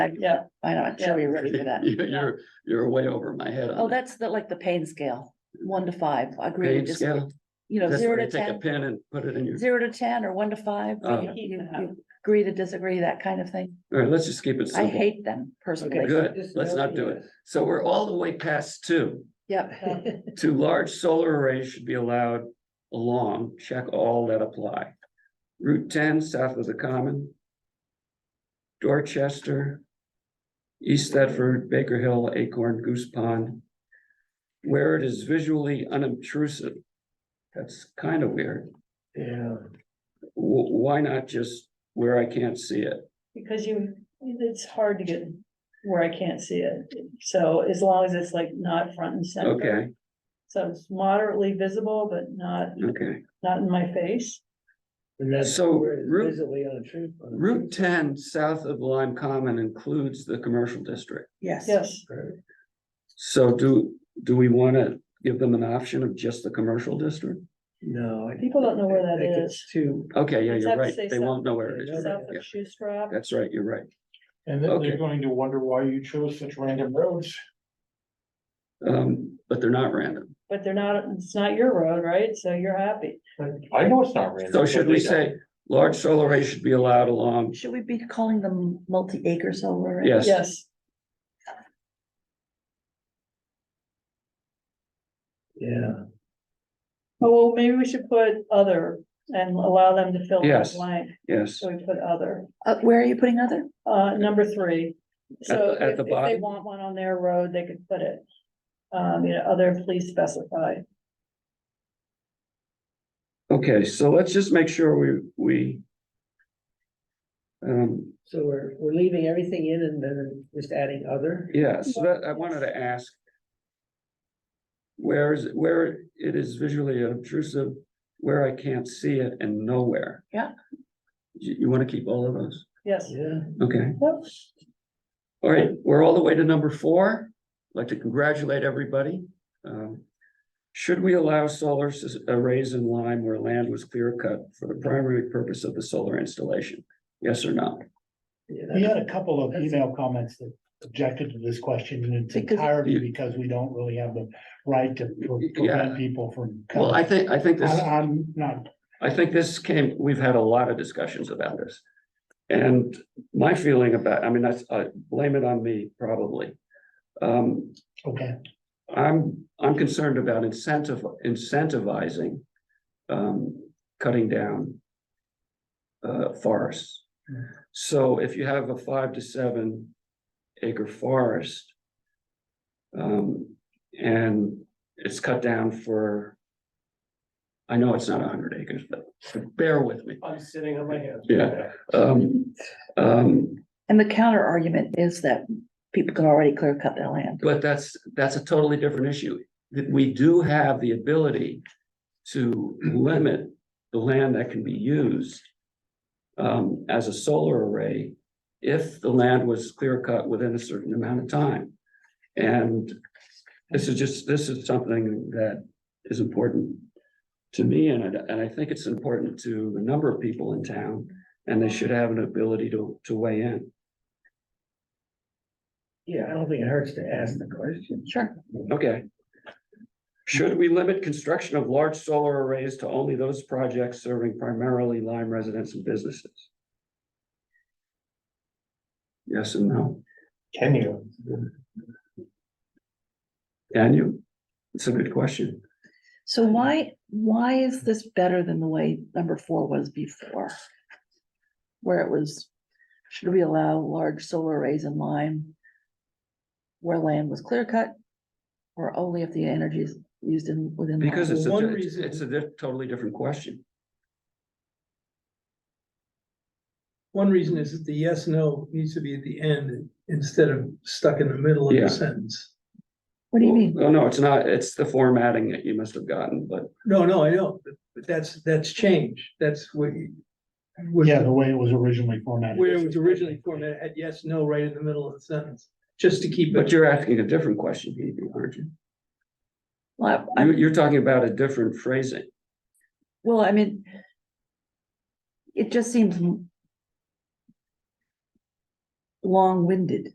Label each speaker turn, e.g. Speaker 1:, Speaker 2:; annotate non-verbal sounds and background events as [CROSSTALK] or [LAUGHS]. Speaker 1: Yeah,
Speaker 2: I know, I'm sure you're ready for that.
Speaker 3: You- [LAUGHS] You're, you're way over my head
Speaker 2: Oh,
Speaker 3: on that.
Speaker 2: that's the, like the pain scale, one to five, I agree,
Speaker 3: Pain
Speaker 2: with just,
Speaker 3: scale.
Speaker 2: you know,
Speaker 3: That's
Speaker 2: zero to
Speaker 3: where you take a
Speaker 2: ten,
Speaker 3: pen and put it in your,
Speaker 2: zero to ten or one to five.
Speaker 3: Oh.
Speaker 2: you- you- you Agree to disagree, that kind of thing.
Speaker 3: all right, let's just keep it
Speaker 2: I
Speaker 3: simple.
Speaker 2: hate them personally.
Speaker 3: Okay, Good, let's not do it. So we're all the way past two.
Speaker 2: Yep,
Speaker 3: Two large solar arrays should be allowed along, check all that apply. Route ten, south of the common. Dorchester. East Thetford, Baker Hill, Acorn, Goose Pond. Where it is visually unobtrusive. That's kind of weird.
Speaker 1: Yeah.
Speaker 3: Wh- why not just where I can't see it?
Speaker 1: Because you, it's hard to get where I can't see it, so as long as it's like not front and center.
Speaker 3: Okay,
Speaker 1: So it's moderately visible, but not,
Speaker 3: okay.
Speaker 1: not in my face.
Speaker 4: And that's
Speaker 3: So,
Speaker 4: where it's
Speaker 3: Route-
Speaker 4: Visibly untrue.
Speaker 3: Route ten, south of Lime Common includes the commercial district.
Speaker 2: yes.
Speaker 1: Yes,
Speaker 3: So do, do we want to give them an option of just the commercial district?
Speaker 4: No. I
Speaker 1: People don't know where that
Speaker 4: think
Speaker 1: is.
Speaker 4: it's Too,
Speaker 3: Okay, yeah,
Speaker 1: It's
Speaker 3: you're
Speaker 1: up to
Speaker 3: right.
Speaker 1: say
Speaker 3: They won't know where it is.
Speaker 1: south
Speaker 3: Yeah.
Speaker 1: of Shoestrap.
Speaker 3: That's right, you're right.
Speaker 5: And then
Speaker 3: Okay.
Speaker 5: they're going to wonder why you chose such random roads.
Speaker 3: Um, but they're not random.
Speaker 1: but they're not, it's not your road, right? So you're happy.
Speaker 5: I know it's not random.
Speaker 3: So
Speaker 5: but
Speaker 3: should we
Speaker 5: they don't.
Speaker 3: say large solar arrays should be allowed along?
Speaker 2: Should we be calling them multi-acre solar?
Speaker 3: Yes.
Speaker 1: Yes,
Speaker 4: yeah,
Speaker 1: oh, well, maybe we should put other and allow them to fill that
Speaker 3: Yes.
Speaker 1: blank,
Speaker 3: Yes,
Speaker 1: so we put other.
Speaker 2: Uh, where are you putting other?
Speaker 1: Uh, number three, so
Speaker 3: At the- at
Speaker 1: if if
Speaker 3: the
Speaker 1: they
Speaker 3: bottom?
Speaker 1: want one on their road, they could put it. Um, you know, other please specify.
Speaker 3: okay, so let's just make sure we, we. Um,
Speaker 4: so we're, we're leaving everything in and then just adding other.
Speaker 3: yeah, so that, I wanted to ask. Where is, where it is visually obtrusive, where I can't see it and nowhere.
Speaker 2: Yeah.
Speaker 3: You, you want to keep all of those?
Speaker 1: Yes,
Speaker 4: Yeah,
Speaker 3: Okay.
Speaker 1: Yep.
Speaker 3: All right, we're all the way to number four. I'd Like to congratulate everybody. Um, Should we allow solar s- uh, arrays in Lyme where land was clear cut for the primary purpose of the solar installation? Yes or no?
Speaker 4: yeah,
Speaker 5: We
Speaker 4: that's-
Speaker 5: had a couple of email comments that objected to this question in its
Speaker 2: Because-
Speaker 5: entirety because we don't really have the right to
Speaker 3: Yeah.
Speaker 5: pre- prevent people from.
Speaker 3: Well, I
Speaker 5: coming.
Speaker 3: think, I think this,
Speaker 5: I- I'm not,
Speaker 3: I think this came, we've had a lot of discussions about this. And my feeling about, I mean, that's, uh, blame it on me, probably. Um,
Speaker 5: okay,
Speaker 3: I'm, I'm concerned about incentive, incentivizing, um, cutting down. Uh, forests.
Speaker 5: Hmm.
Speaker 3: So if you have a five to seven acre forest. Um, and it's cut down for. I know it's not hundred acres, but bear with me.
Speaker 4: I'm sitting on my hands.
Speaker 3: Yeah. Um, um,
Speaker 2: And the counter argument is that people can already clear cut their land.
Speaker 3: But that's, that's a totally different issue. That we do have the ability to limit the land that can be used um, as a solar array if the land was clear cut within a certain amount of time. And this is just, this is something that is important to me and I, and I think it's important to a number of people in town and they should have an ability to, to weigh in.
Speaker 4: Yeah, I don't think it hurts to ask the question.
Speaker 2: Sure.
Speaker 3: Okay. Should we limit construction of large solar arrays to only those projects serving primarily Lyme residents and businesses? Yes and no.
Speaker 5: can you?
Speaker 3: Can you? It's a good question.
Speaker 2: So
Speaker 3: Um,
Speaker 2: why, why is this better than the way number four was before? Where it was, should we allow large solar arrays in Lyme? Where land was clear cut? Or only if the energy is used in, within. Lyme?
Speaker 3: Because it's, a
Speaker 4: One
Speaker 3: it's-
Speaker 4: reason-
Speaker 3: it's a di- totally different question.
Speaker 6: One reason is that the yes, no needs to be at the end instead of stuck in the middle of
Speaker 3: Yeah.
Speaker 6: the sentence.
Speaker 2: What do you mean?
Speaker 3: Oh, no, it's not. It's the formatting that you must have gotten, but
Speaker 6: No, no, I know, but- but that's, that's change. That's what you. what-
Speaker 5: Yeah, the way it was originally formatted.
Speaker 6: Where it was originally formatted, had yes, no right in the middle of the sentence, just to keep
Speaker 3: but
Speaker 6: it.
Speaker 3: you're asking a different question, Hebe, aren't you?
Speaker 2: Well, I-
Speaker 3: You- You're talking about a different phrasing.
Speaker 2: Well, I mean. It just seems. m- long-winded.